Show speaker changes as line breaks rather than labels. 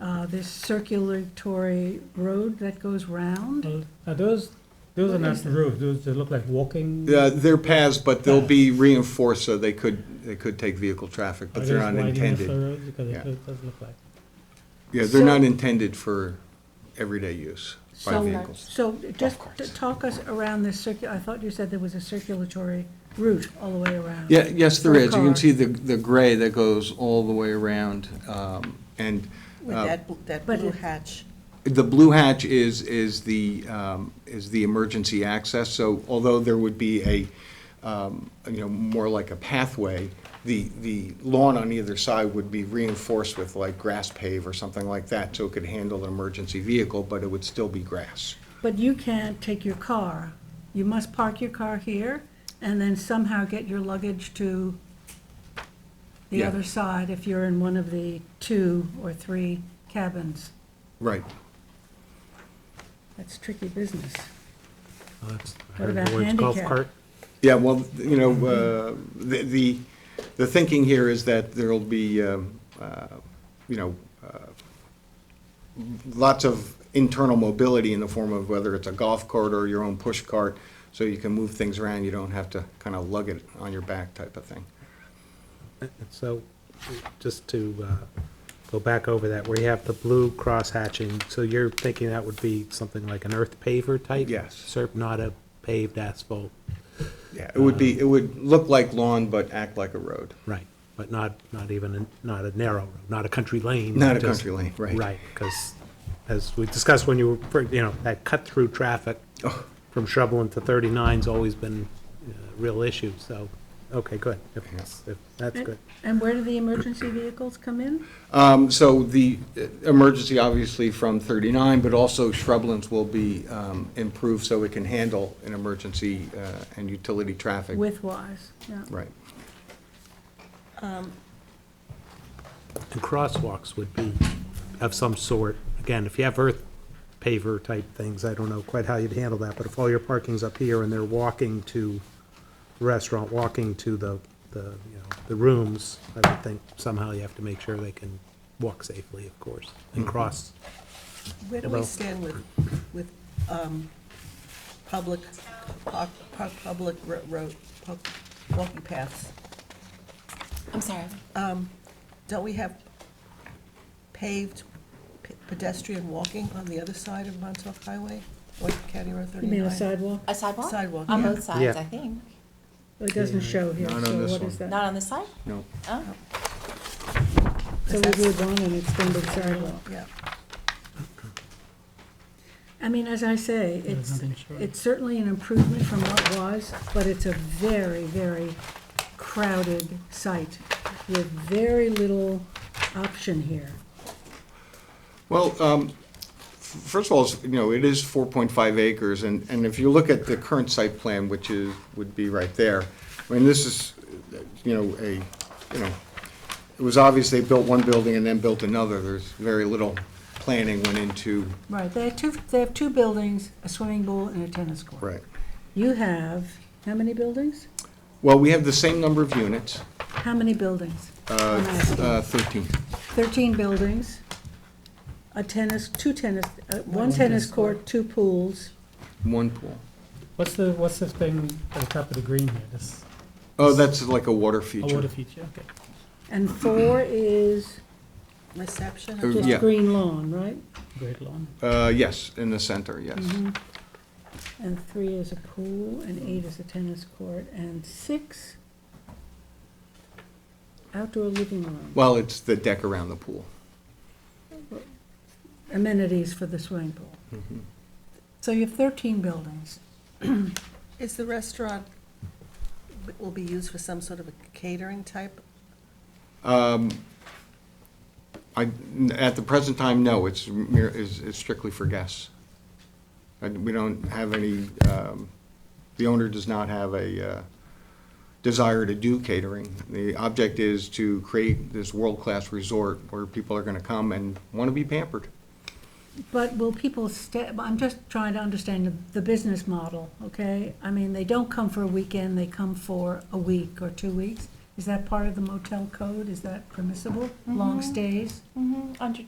uh, this circulatory road that goes round.
Well, Are those, those are
What
not
is
roofs, those, they look like walking?
Yeah, they're paths, but they'll be reinforced so they could, they could take vehicle traffic,
Are
but they're
those
not
wide enough for
intended.
roads? Because
Yeah.
it does does look like.
Yeah, they're not intended for everyday use by
So-
vehicles.
So just
course.
t- talk us around this circu, I thought you said there was a circulatory route all the way around.
Yeah, yes, there
For a
is. You can
car.
see the, the gray that goes all the way around. um, And
With
uh,
that, bl- that
But
blue
it-
hatch.
the blue hatch is, is the, um, is the emergency access. So although there would be a, um, you know, more like a pathway, the, the lawn on either side would be reinforced with like grass pave or something like that, so it could handle an emergency vehicle, but it would still be grass.
But you can't take your car. You must park your car here and then somehow get your luggage to the
Yeah.
other side if you're in one of the two or three cabins.
Right.
That's tricky business.
That's
What
Harry
about
Boyd's golf
handicap?
cart.
Yeah, well, you know, uh, the, the, the thinking here is that there'll be, um, uh, you know, uh, lots of internal mobility in the form of whether it's a golf cart or your own push cart, so you can move things around, you don't have to kind of lug it on your back type of thing.
And So, just to uh, go back over that, where you have the blue cross hatching, so you're thinking that would be something like an earth paver type?
Yes.
Serp, not a paved asphalt,
Yeah, uh, it would be, it would look like lawn, but act like a road.
right, but not, not even, a- not a narrow, road, not a country lane.
Not a
just-
country lane, right.
Right, because as we discussed when you were, you know, that cut-through traffic
Oh.
from Shrubland to 39's always been uh, a real issue, so, okay, good. If- if- That's
And-
good.
And where do the emergency vehicles come in?
Um, So the uh, emergency, obviously, from 39, but also shrublands will be um, improved so it can handle an emergency uh, and utility traffic.
With Wise, yeah.
Right.
And crosswalks would be of some sort. Again, if you have earth paver type things, I don't know quite how you'd handle that, but if all your parking's up here and they're walking to the restaurant, walking to the, the, you know, the rooms, I would think somehow you have to make sure they can walk safely, of course, and cross.
Where do we
Hello.
stand with, with um, public, park- park- public ro- road, pub- walking paths?
I'm sorry.
Don't we have paved pe- pedestrian walking on the other side of Montauk Highway, or County Road 39?
You mean a sidewalk?
A sidewalk?
Sidewalk,
On
yeah.
both sides,
Yeah.
I think.
It doesn't show here,
Not on
so
this
what is
one.
that?
Not on this side?
No.
Oh,
So we would want an extended sidewalk.
Yeah,
I mean, as I say, it's,
nothing showing.
it's certainly an improvement from what was, but it's a very, very crowded site with very little option here.
Well, um, f- first of all, it's, you know, it is 4.5 acres, and, and if you look at the current site plan, which is, would be right there, I mean, this is, uh, you know, a, you know, it was obvious they built one building and then built another. There's very little planning went into,
Right, they have two, they have two buildings, a swimming pool and a tennis court.
right.
You have, how many buildings?
Well, we have the same number of units,
How many buildings? I'm asking.
uh, 13.
13 buildings, a tennis, two tennis, uh, one tennis court, two pools.
One pool.
What's the, what's the thing at the top of the green here, this,
Oh, that's like a water
a water
feature.
feature, okay.
And four is
reception,
Uh,
just
Yeah.
green lawn, right?
Great lawn.
Uh, yes, in the center, yes.
And three is a pool, and eight is a tennis court, and six, outdoor living room,
Well, it's the deck around the pool.
amenities for the swimming pool. So you have 13 buildings.
is the restaurant, b- will be used for some sort of a catering type?
I, at the present time, no, it's mere, is is strictly for guests. And we don't have any, um, the owner does not have a, uh, desire to do catering. The object is to create this world-class resort where people are gonna come and wanna be pampered.
But will people stay, I'm just trying to understand the, the business model, okay? I mean, they don't come for a weekend, they come for a week or two weeks. Is that part of the motel code? Is that permissible, long stays?
Mm-hmm,
mhm, under